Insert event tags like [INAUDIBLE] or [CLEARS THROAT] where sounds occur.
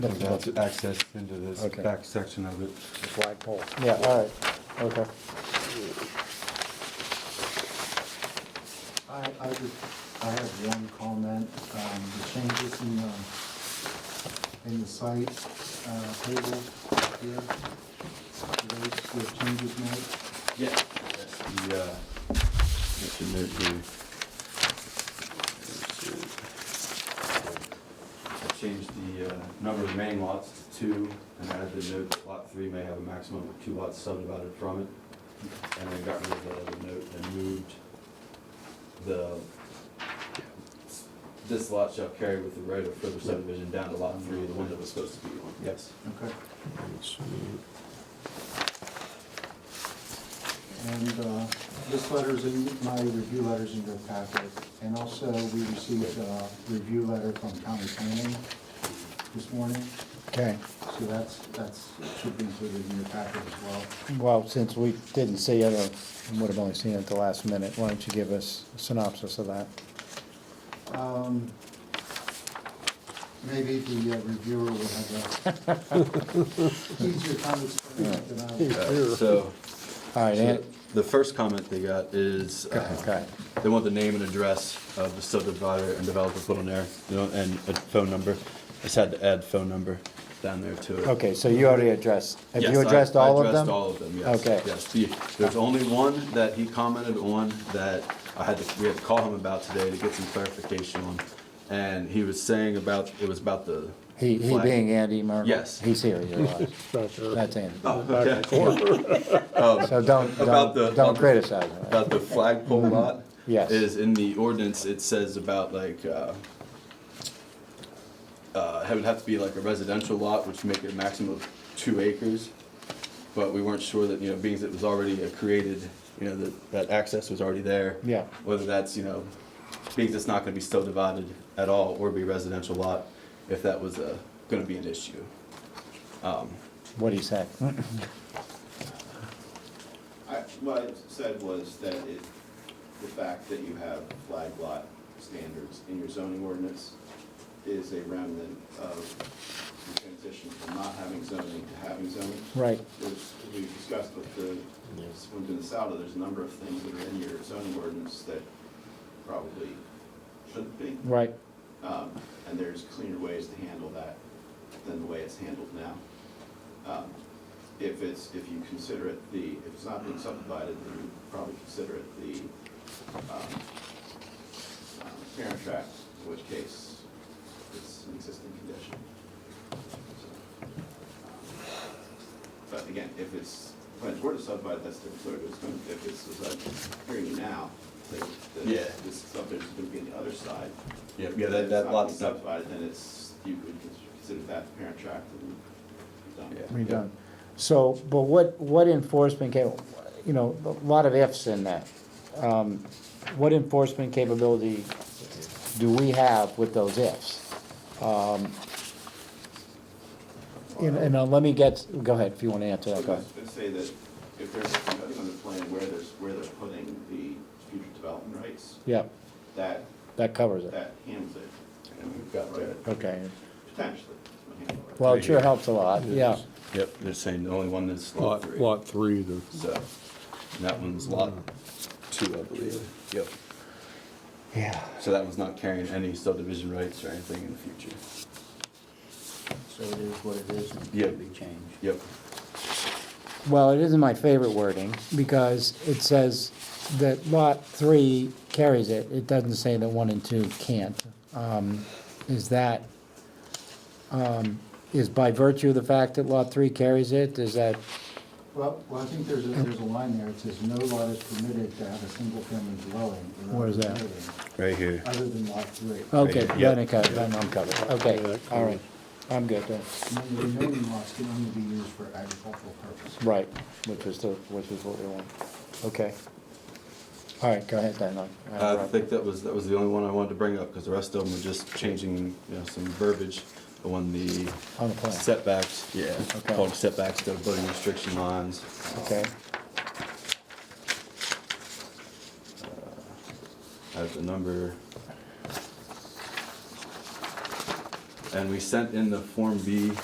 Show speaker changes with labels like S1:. S1: That's
S2: That's
S1: about-
S2: access into this
S1: Okay.
S2: back section of it.
S3: flagpole.
S1: Yeah, all right, okay.
S4: I, I just, I have one comment, um, the changes in the, in the site, uh, table here. Those, the changes made,
S2: Yeah. That's the, uh, that's the note here. I changed the, uh, number of main lots to two and added the note that lot three may have a maximum of two lots subdivided from it. And then got rid of that other note and moved the, this lot shall carry with the right of further subdivision down to lot three, the one that was supposed to be on. Yes.
S4: okay. And, uh, this letter's in, my review letter's in your packet, and also we received a review letter from county planning this morning,
S1: Okay,
S4: so that's, that's, should be included in your packet as well.
S1: well, since we didn't see it, or would have only seen it at the last minute, why don't you give us a synopsis of that?
S4: Um, Maybe the uh, reviewer will have a [LAUGHS] easier time explaining it than I will.
S2: So,
S1: All right,
S2: So
S1: Ant,
S2: The first comment they got is,
S1: go ahead, go
S2: uh,
S1: ahead.
S2: they want the name and address of the subdivider and developer put on there, you know, and a phone number. I Just had to add phone number down there to it.
S1: Okay, so you already addressed, have
S2: Yes,
S1: you
S2: I-
S1: addressed all of them?
S2: I addressed all of them, yes.
S1: Okay.
S2: Yes, The- there's only one that he commented on that I had to, we had to call him about today to get some clarification on. And he was saying about, it was about the.
S1: He, he
S2: flag.
S1: being Andy Murphy?
S2: Yes.
S1: He's here,
S2: [LAUGHS]
S1: you're right. That's Andy.
S2: Oh, okay.
S1: So don't,
S2: About
S1: don't,
S2: the-
S1: don't criticize him.
S2: about the flagpole lot.
S1: Yes.
S2: Is in the ordinance, it says about like, uh, uh, it would have to be like a residential lot, which make it a maximum of two acres. But we weren't sure that, you know, being that it was already a created, you know, that, that access was already there.
S1: Yeah.
S2: Whether that's, you know, being that's not gonna be subdivided at all or be residential lot, if that was, uh, gonna be an issue.
S1: What'd
S2: [CLEARS THROAT]
S1: he say?
S5: I, what I said was that it, the fact that you have flag lot standards in your zoning ordinance is a remnant of the transition from not having zoning to having zoning.
S1: Right,
S5: There's, we discussed with the, when doing this out, there's a number of things that are in your zoning ordinance that probably shouldn't be.
S1: right,
S5: Um, and there's cleaner ways to handle that than the way it's handled now. Um, If it's, if you consider it the, if it's not being subdivided, then you probably consider it the, um, um, parent tract, in which case it's an existing condition. So, um, But again, if it's, when it's word to subdivide, that's different, story, but it's going, if it's, as I'm hearing you now, like, the-
S2: Yeah.
S5: this subdivision's gonna be on the other side,
S2: Yeah, yeah, that, that lot's not,
S5: not being subdivided, then it's, you would consider that the parent tract and you're done.
S2: yeah.
S1: we done. So, but what, what enforcement cap, you know, a lot of ifs in that. Um, What enforcement capability do we have with those ifs? Um, And, and uh, let me get, go ahead, if you wanna answer
S5: So I
S1: that,
S5: was
S1: go ahead.
S5: gonna say that if there's nothing on the plan where there's, where they're putting the future development rights,
S1: Yeah,
S5: that,
S1: that covers it,
S5: that handles it.
S2: And we've got that.
S1: okay.
S5: Potentially. it'll handle it.
S1: Well,
S2: Right
S1: it sure
S2: here.
S1: helps a lot, yeah.
S2: Yep, they're saying the only one that's lot
S6: Lot,
S2: three.
S6: lot three, the,
S2: So, and that one's lot two, I believe. Yep.
S1: Yeah.
S2: So that one's not carrying any subdivision rights or anything in the future.
S3: So it is what it is, and
S2: Yeah.
S3: can be changed.
S2: Yep.
S1: Well, it isn't my favorite wording, because it says that lot three carries it, it doesn't say that one and two can't. Um, Is that, um, is by virtue of the fact that lot three carries it, is that,
S4: Well, well, I think there's, a- there's a line there, it says no lot is permitted to have a single-family dwelling. or
S1: Where is that?
S4: building
S2: Right here.
S4: Other than lot three.
S1: okay,
S2: Right, yeah.
S1: then it co- then I'm covered, okay, all right, I'm good then.
S4: And then the remaining lots can only be used for agricultural purposes.
S1: Right, which is the, which is what we want, okay. All right, go ahead then, I- I
S2: Uh, I think that was, that was the only one I wanted to bring up, because the rest of them were just changing, you know, some verbiage on the
S1: On the plan.
S2: setbacks, yeah,
S1: Okay.
S2: called setbacks, the building restriction lines.
S1: Okay,
S2: uh, I have the number. And we sent in the Form B